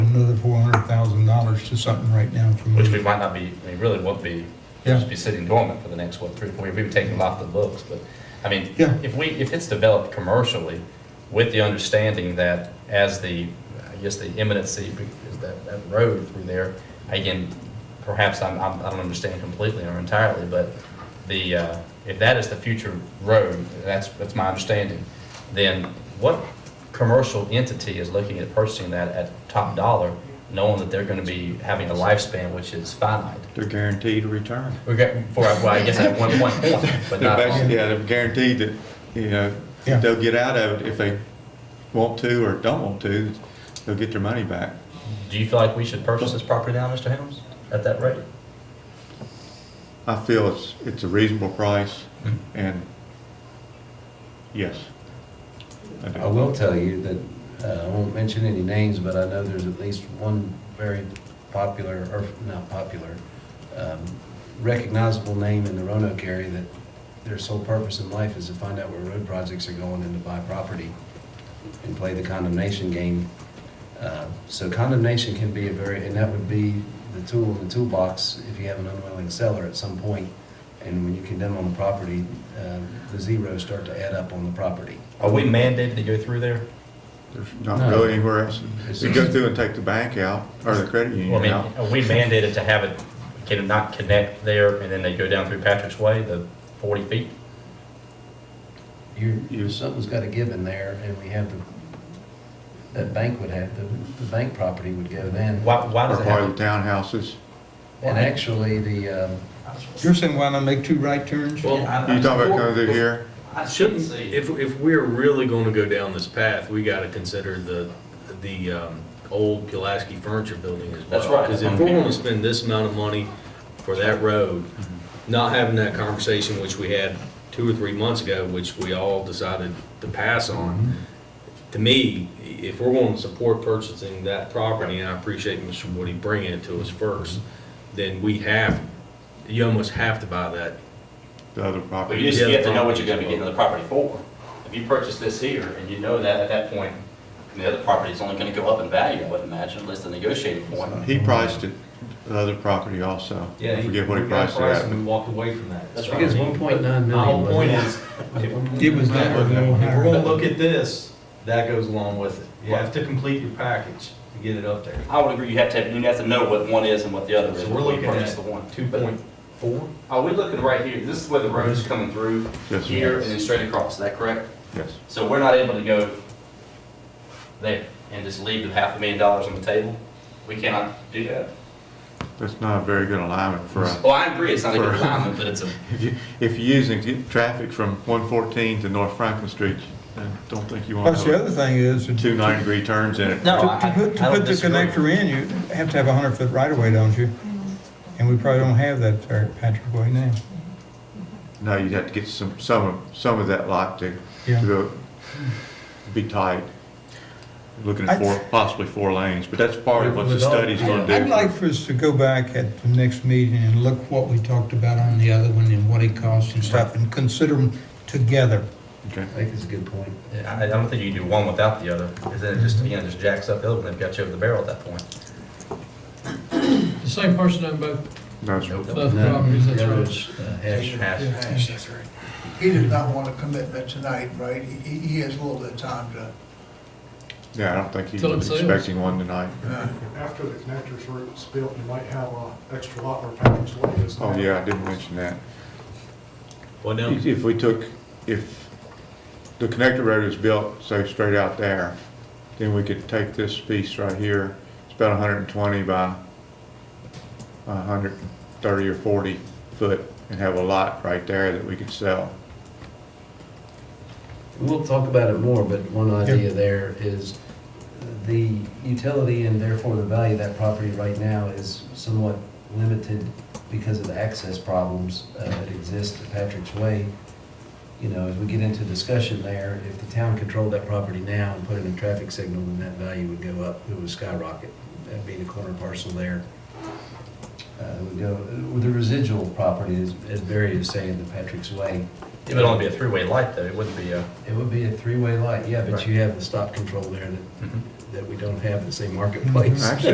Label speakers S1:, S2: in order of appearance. S1: another four hundred thousand dollars to something right now from.
S2: Which we might not be, I mean, really would be,
S1: Yeah.
S2: just be sitting dormant for the next, what, three, or four years, we would take it off the books, but, I mean,
S1: Yeah.
S2: if we, if it's developed commercially with the understanding that as the, I guess the imminency, is that, that road through there, again, perhaps I'm, I'm- I don't understand completely or entirely, but the, uh, if that is the future road, that's, that's my understanding, then what commercial entity is looking at purchasing that at top dollar, knowing that they're gonna be having a lifespan which is finite?
S3: They're guaranteed a return.
S2: We got, for, well, I guess at one point, but
S3: They're
S2: not all.
S3: basically, yeah, they're guaranteed that, you know,
S1: Yeah.
S3: they'll get out of it if they want to or don't want to, they'll get their money back.
S2: Do you feel like we should purchase this property now, Mr. Helms, at that rate?
S3: I feel it's, it's a reasonable price
S2: Hmm?
S3: and yes. I do.
S4: I will tell you that, uh, I won't mention any names, but I know there's at least one very popular, or not popular, um, recognizable name in the Roanoke area that their sole purpose in life is to find out where road projects are going and to buy property and play the condemnation game. Uh, So condemnation can be a very, and that would be the tool in the toolbox if you have an unwilling seller at some point. And when you condemn on a property, uh, the zeros start to add up on the property.
S2: Are we mandated to go through there?
S3: There's not
S4: No.
S3: go anywhere else.
S4: It's
S3: You go
S4: just-
S3: through and take the bank out or the credit
S2: Well, I
S3: union
S2: mean,
S3: out.
S2: are we mandated to have it, can it not connect there, and then they go down through Patrick's Way, the 40 feet?
S4: You're,
S3: You-
S4: something's gotta give in there, and we have the, that bank would have, the, the bank property would go then.
S2: Why, why
S3: Or
S2: does it
S3: part
S2: have?
S3: of the townhouses.
S4: And actually, the, um,
S1: You're saying why not make two right turns?
S5: Well,
S3: You
S5: I-
S3: talking about going through
S5: Well-
S3: here?
S5: I shouldn't, if, if we're really going to go down this path, we got to consider the, the um, old Pulaski Furniture Building as well.
S2: That's right.
S5: Because if we're going to spend this amount of money for that road,
S2: Mm-hmm.
S5: not having that conversation which we had two or three months ago, which we all decided to pass on,
S2: Mm-hmm.
S5: to me, if we're going to support purchasing that property, and I appreciate Mr. Woody bringing it to us first,
S2: Mm-hmm.
S5: then we have, you almost have to buy that
S3: The other
S2: But
S3: property.
S2: you just you have to know what you're gonna be getting the property for. If you purchase this here, and you know that at that point, the other property is only gonna go up in value, I would imagine, unless the negotiating point.
S3: He priced it, the other property also.
S6: Yeah,
S3: I
S6: he-
S3: forget what he
S6: we got
S3: priced it at.
S6: and we walked away from that.
S2: That's
S6: So,
S4: I
S2: right.
S4: think it's
S6: I mean,
S4: one point nine
S6: My
S4: million.
S6: whole
S4: wasn't
S6: point
S4: it?
S6: is, if
S1: It was that or no
S6: if we're gonna
S1: higher.
S6: look at this, that goes along with it. You have to complete your package to get it up there.
S2: I would agree, you have to, you have to know what one is and what the other
S6: So
S2: is.
S6: we're
S2: before you
S6: looking
S2: purchase
S6: at
S2: the one.
S6: two
S2: But-
S6: point four?
S2: Are we Oh, looking right here? This is where the road is coming through,
S3: Yes, sir.
S2: here, and then straight across, is that correct?
S3: Yes.
S2: So we're not able to go there and just leave the half a million dollars on the table? We cannot do that?
S3: That's not a very good alignment for a,
S2: Well, I agree, it's not a good alignment, but it's a,
S3: if you, if you're using to get traffic from one fourteen to North Franklin Street, I don't think you want
S1: Plus, the
S3: to
S1: other thing is.
S3: have two ninety degree turns in it.
S1: To-
S2: No, I-
S1: To put, to
S2: I don't
S1: put the
S2: disagree.
S1: connector in, you have to have a hundred foot right of way, don't you? And we probably don't have that there at Patrick Way now.
S3: No, you'd have to get some, some, of- some of that lot to,
S1: Yeah.
S3: to go- be tight. Looking
S1: I-
S3: at four, possibly four lanes, but that's part of what the
S6: With all-
S3: study's gonna do.
S1: I'd like for us to go back at the next meeting and look what we talked about on the other one and what it costs and stuff and consider them together.
S3: Okay.
S4: I think it's a good point.
S2: I I don't think you can do one without the other, because then it just, again, it just jacks up the other one, they've got you over the barrel at that point.
S7: The same person on both,
S3: No, sir.
S2: Nope.
S7: both properties,
S4: The
S7: that's
S4: other
S7: right.
S4: is, uh, hash.
S2: Hash.
S8: He does not want a commitment tonight, right? He, he has a little bit of time to,
S3: Yeah, I don't think he
S7: Till it
S3: was
S7: sells.
S3: expecting one tonight.
S8: uh,
S9: After the connectors were built, you might have an extra lot where Patrick's Way is now.
S3: Oh, yeah, I didn't mention that.
S5: Well, now,
S3: If if we took, if the connector road is built, say, straight out there, then we could take this piece right here, it's about hundred and twenty by hundred and thirty or forty foot, and have a lot right there that we could sell.
S4: We'll talk about it more, but one idea there is the utility and therefore the value of that property right now is somewhat limited because of the access problems uh, that exist at Patrick's Way. You know, as we get into discussion there, if the town controlled that property now and put in a traffic signal, then that value would go up, it would skyrocket. That'd be the corner parcel there. Uh, it would go, with the residual property, as as Barry is saying, the Patrick's Way
S2: It would only be a three-way light though, it wouldn't be a,
S4: It would be a three-way light, yeah, but
S2: Right.
S4: you have the stop control there that, that we don't have in the same marketplace.
S3: Actually,